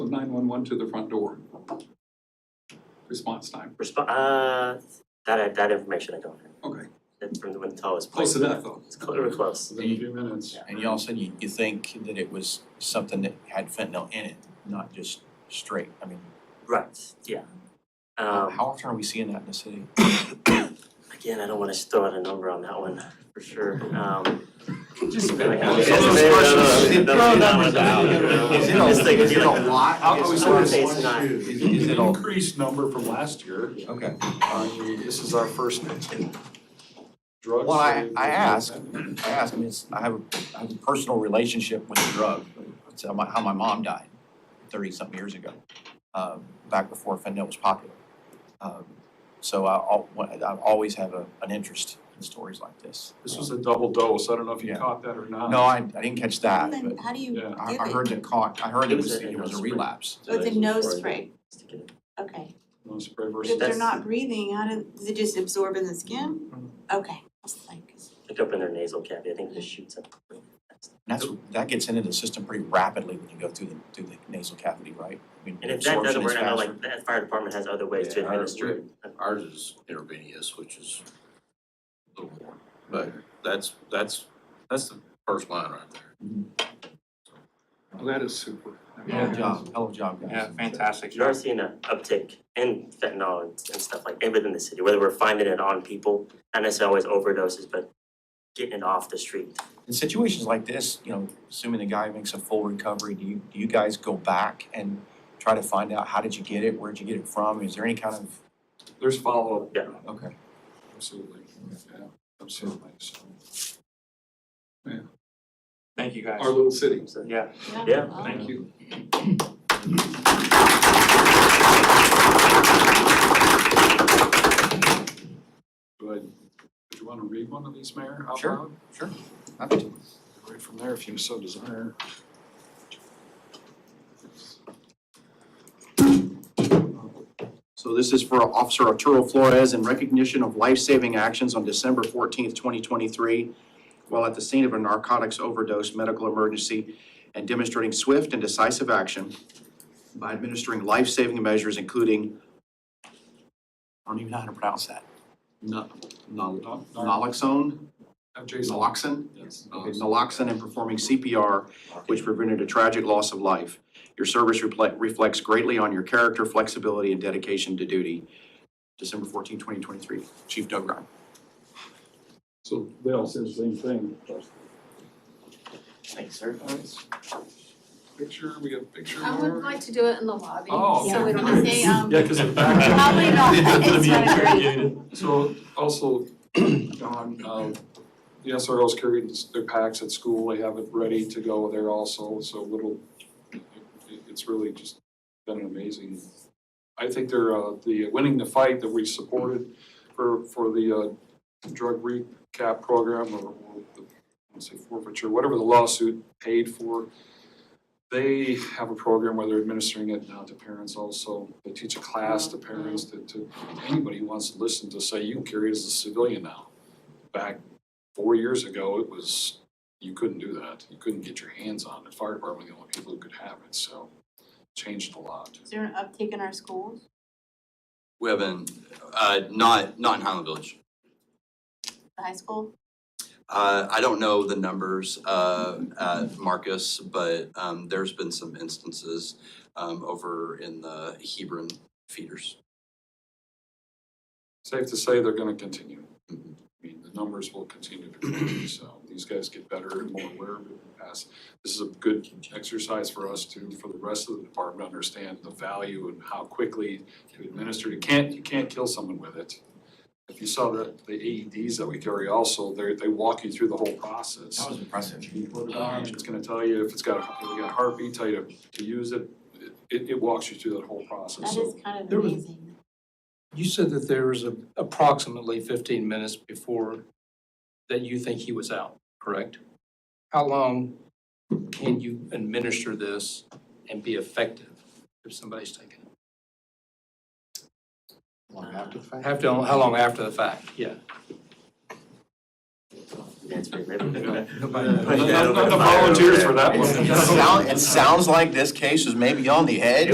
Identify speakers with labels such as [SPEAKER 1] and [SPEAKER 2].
[SPEAKER 1] nine-one-one to the front door. Response time,
[SPEAKER 2] Resp- uh, that, I- that information I don't have.
[SPEAKER 1] okay,
[SPEAKER 2] It's from the when the tow was
[SPEAKER 1] close
[SPEAKER 2] placed.
[SPEAKER 1] enough though.
[SPEAKER 2] It's cl- we're close.
[SPEAKER 3] Within a
[SPEAKER 4] few minutes.
[SPEAKER 3] And
[SPEAKER 2] Mm-hmm.
[SPEAKER 3] you also, you, you think that it was something that had fentanyl in it, not just straight, I mean,
[SPEAKER 2] Right, yeah. Um,
[SPEAKER 3] how often are we seeing that in the city?
[SPEAKER 2] again, I don't wanna just throw out a number on that one, for sure. Um,
[SPEAKER 1] Just.
[SPEAKER 2] like,
[SPEAKER 1] spitballing.
[SPEAKER 2] I guess maybe- no, no, no,
[SPEAKER 4] Throw
[SPEAKER 2] that's not
[SPEAKER 4] numbers
[SPEAKER 2] what
[SPEAKER 4] Oh, out.
[SPEAKER 2] I'm-
[SPEAKER 4] Is it
[SPEAKER 2] I'm just thinking,
[SPEAKER 4] is it a
[SPEAKER 2] like,
[SPEAKER 4] lot?
[SPEAKER 2] I
[SPEAKER 4] It's
[SPEAKER 2] was
[SPEAKER 4] not-
[SPEAKER 2] gonna say it's not.
[SPEAKER 4] Is is it an increased number from last year?
[SPEAKER 3] Okay,
[SPEAKER 4] I mean, This is our first drug.
[SPEAKER 3] Well, I-
[SPEAKER 4] sale.
[SPEAKER 3] I ask. I ask, I mean, it's, I have, a- I have a personal relationship with the drug, it's how my, how my mom died thirty-something years ago, uh, back before fentanyl was popular. Um, So I, al- I always have a, an interest in stories like this.
[SPEAKER 4] This was a double dose. I don't know if you
[SPEAKER 3] Yeah.
[SPEAKER 4] caught that or not.
[SPEAKER 3] No, I, I didn't catch that,
[SPEAKER 5] And
[SPEAKER 3] but
[SPEAKER 5] then how do you give
[SPEAKER 4] Yeah,
[SPEAKER 5] it?
[SPEAKER 3] I, I heard that caught, I heard it was, it was a relapse.
[SPEAKER 5] Oh, it's a nose spray, okay.
[SPEAKER 4] No spray versus.
[SPEAKER 5] If they're
[SPEAKER 2] That's-
[SPEAKER 5] not breathing, how do, does it just absorb in the skin? Okay, I was like,
[SPEAKER 2] Pick up in their nasal cavity, I think it just shoots up.
[SPEAKER 3] And that's, that gets into the system pretty rapidly when you go through the, through the nasal cavity, right? I mean,
[SPEAKER 2] And if that
[SPEAKER 3] absorption
[SPEAKER 2] doesn't
[SPEAKER 3] is
[SPEAKER 2] work, I know
[SPEAKER 3] faster.
[SPEAKER 2] like that fire department has other ways to
[SPEAKER 6] Yeah, I-
[SPEAKER 2] administer it.
[SPEAKER 6] Ours is intravenous, which is a little more, but that's, that's, that's the first line right there.
[SPEAKER 1] Well, That is super. I mean,
[SPEAKER 3] Hell of a job, hell of a job, guys.
[SPEAKER 7] Yeah, fantastic.
[SPEAKER 2] You are seeing an uptick in fentanyl and, and stuff like, and within the city, whether we're finding it on people, not necessarily always overdoses, but getting it off the street.
[SPEAKER 3] In situations like this, you know, assuming the guy makes a full recovery, do you, do you guys go back and try to find out, how did you get it, where'd you get it from, is there any kind of,
[SPEAKER 4] There's follow-up.
[SPEAKER 2] Yeah.
[SPEAKER 3] okay,
[SPEAKER 4] Absolutely. Yeah, absolutely. So
[SPEAKER 7] Thank you guys.
[SPEAKER 1] Our little city,
[SPEAKER 2] So,
[SPEAKER 7] Yeah.
[SPEAKER 2] Yeah.
[SPEAKER 5] oh.
[SPEAKER 1] thank you.
[SPEAKER 4] good. Would you want to read one of these, Mayor, out
[SPEAKER 3] Sure.
[SPEAKER 4] loud?
[SPEAKER 3] happy to.
[SPEAKER 4] Right from there, if you so desire.
[SPEAKER 3] So this is for Officer Arturo Flores in recognition of life-saving actions on December fourteenth, twenty twenty-three, while at the scene of a narcotics overdose medical emergency and demonstrating swift and decisive action by administering life-saving measures, including, I don't even know how to pronounce that. No, no,
[SPEAKER 4] No, no,
[SPEAKER 3] naloxone,
[SPEAKER 4] have Jason.
[SPEAKER 3] naloxone,
[SPEAKER 4] Yes.
[SPEAKER 3] Okay, naloxone and performing CPR, which prevented a tragic loss of life. Your service reflect- reflects greatly on your character, flexibility, and dedication to duty. December 14, 2023, Chief Doug Ryan.
[SPEAKER 4] So they all said the same thing.
[SPEAKER 3] Thanks, sir.
[SPEAKER 4] Nice. Picture, we have picture.
[SPEAKER 8] I would like to do it in the lobby,
[SPEAKER 4] Oh,
[SPEAKER 8] so we don't
[SPEAKER 4] okay.
[SPEAKER 8] have to, um,
[SPEAKER 4] Yeah, because it backed up.
[SPEAKER 5] Probably not. It's not a great-
[SPEAKER 4] So also, Don, um, the SROs carry their packs at school, they have it ready to go there also, so little, it- it's really just been an amazing. I think they're, uh, the, winning the fight that we supported for, for the, uh, drug recap program or, or the, I don't say forfeiture, whatever the lawsuit paid for. They have a program where they're administering it now to parents also. They teach a class to parents to, to anybody who wants to listen to say you can carry it as a civilian now. Back four years ago, it was, you couldn't do that. You couldn't get your hands on it. Fire department, were the only people who could have it, so changed a lot.
[SPEAKER 5] Is there an uptick in our schools?
[SPEAKER 6] We haven't, uh, not, not in Highland Village.
[SPEAKER 5] The high school?
[SPEAKER 6] Uh, I don't know the numbers, uh, at Marcus, but, um, there's been some instances, um, over in the Hebron feeders.
[SPEAKER 4] Safe to say they're gonna continue. I
[SPEAKER 6] Mhm.
[SPEAKER 4] mean, the numbers will continue to grow, so these guys get better and more aware of it and pass. This is a good exercise for us to, for the rest of the department, to understand the value and how quickly to administer. You can't, you can't kill someone with it. If you saw the, the AEDs that we carry also, they, they walk you through the whole process. Um,
[SPEAKER 3] was impressive.
[SPEAKER 4] It's gonna tell you if it's got, a- if it's got a heartbeat, tell you to, to use it. It, it walks you through that whole process,
[SPEAKER 5] That
[SPEAKER 4] so.
[SPEAKER 5] is kind
[SPEAKER 7] There
[SPEAKER 5] of
[SPEAKER 7] was-
[SPEAKER 5] amazing.
[SPEAKER 7] You said that there was a- approximately 15 minutes before that you think he was out, correct? How long can you administer this and be effective if somebody's taken it? Have to, how long after the fact? Yeah.
[SPEAKER 2] That's pretty good.
[SPEAKER 7] Uh,
[SPEAKER 4] None of the volunteers for that one.
[SPEAKER 3] It sounds, it sounds like this case is maybe on the edge